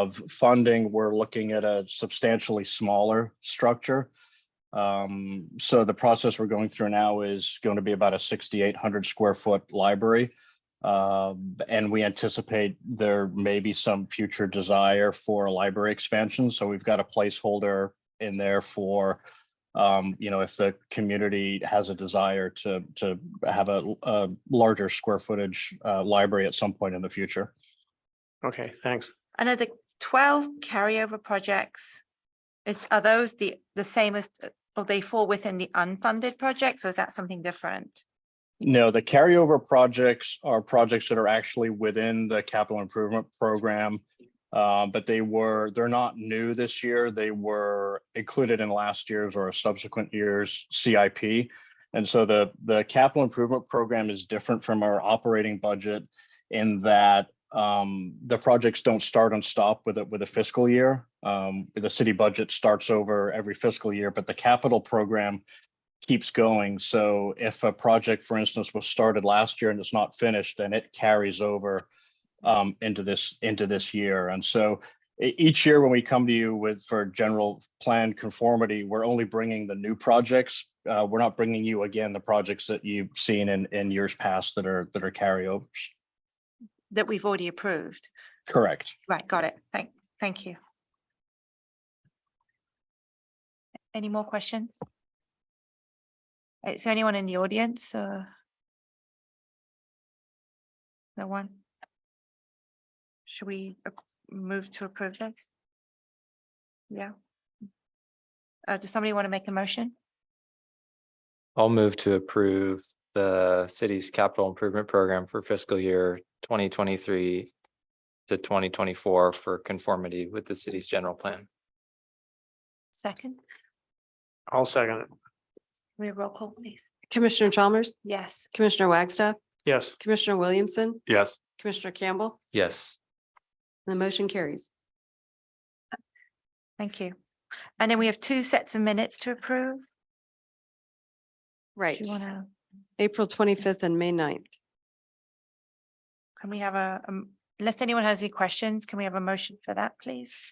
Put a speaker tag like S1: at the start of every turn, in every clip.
S1: of funding, we're looking at a substantially smaller structure. Um, so the process we're going through now is going to be about a sixty-eight hundred square foot library. Um, and we anticipate there may be some future desire for a library expansion, so we've got a placeholder in there for um, you know, if the community has a desire to, to have a, a larger square footage, uh, library at some point in the future.
S2: Okay, thanks.
S3: And are the twelve carryover projects, is, are those the, the same as, uh, or they fall within the unfunded projects, or is that something different?
S1: No, the carryover projects are projects that are actually within the capital improvement program. Uh, but they were, they're not new this year. They were included in last year's or subsequent year's CIP. And so the, the capital improvement program is different from our operating budget in that um, the projects don't start and stop with a, with a fiscal year. Um, the city budget starts over every fiscal year, but the capital program keeps going. So if a project, for instance, was started last year and it's not finished, then it carries over um, into this, into this year. And so e- each year when we come to you with, for general plan conformity, we're only bringing the new projects. Uh, We're not bringing you again the projects that you've seen in, in years past that are, that are carryovers.
S3: That we've already approved?
S1: Correct.
S3: Right, got it. Thank, thank you. Any more questions? Is there anyone in the audience? uh? No one? Should we ap- move to approve this? Yeah. Uh, does somebody want to make a motion?
S4: I'll move to approve the city's capital improvement program for fiscal year twenty twenty-three to twenty twenty-four for conformity with the city's general plan.
S3: Second,
S2: I'll second it.
S3: we have roll call, please.
S5: Commissioner Chalmers,
S3: Yes,
S5: Commissioner Wagstaff,
S2: Yes.
S5: Commissioner Williamson,
S2: Yes.
S5: Commissioner Campbell,
S4: Yes,
S5: and the motion carries.
S3: thank you. And then we have two sets of minutes to approve. Do
S5: Right,
S3: you want to?
S5: April twenty-fifth and May 9th.
S3: Can we have a, um, unless anyone has any questions, can we have a motion for that, please?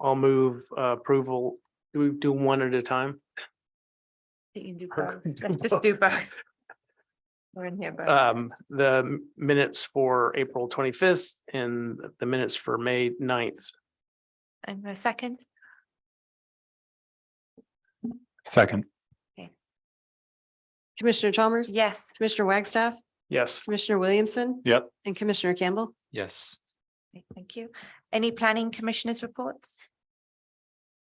S2: I'll move uh, approval. Do we do one at a time?
S3: You can do
S2: Perfect.
S3: both. Let's Uh, just do both. We're in here, but
S2: Um, the m- minutes for April twenty-fifth and the minutes for May 9th.
S3: and a second,
S6: Second,
S5: Commissioner Chalmers.
S3: yes,
S5: Commissioner Wagstaff,
S2: Yes.
S5: Commissioner Williamson.
S6: Yep.
S5: And Commissioner Campbell.
S4: yes.
S3: Okay, thank you. Any planning commissioners reports?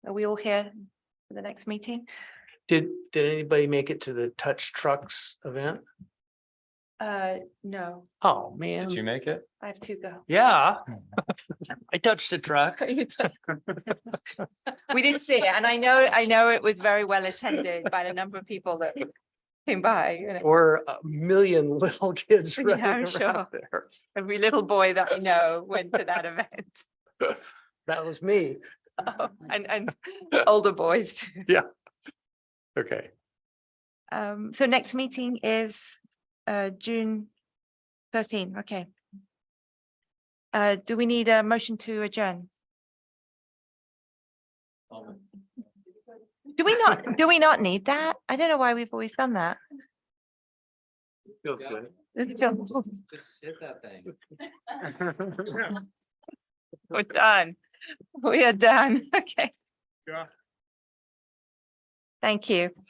S3: Are we all here for the next meeting?
S2: Did, did anybody make it to the touch trucks event?
S3: Uh, no,
S2: Oh,
S4: Did you
S2: man.
S4: make it?
S3: I have two go.
S2: Yeah. I touched a truck.
S3: We did see it, and I know, I know it was very well attended by the number of people that came by, you know.
S2: Or a million little kids
S3: Yeah,
S2: running
S3: I'm
S2: around
S3: sure.
S2: there.
S3: Every little boy that I know went to that event.
S2: That was me.
S3: Oh, and and older boys too.
S2: Okay.
S3: Um, so next meeting is uh June thirteen, okay. Uh, do we need a motion to adjourn? Do we not, do we not need that? I don't know why we've always done that.
S2: Feels good.
S3: It's still-
S4: Just hit that thing.
S3: We're done. We are done, okay.
S2: Yeah.
S3: Thank you.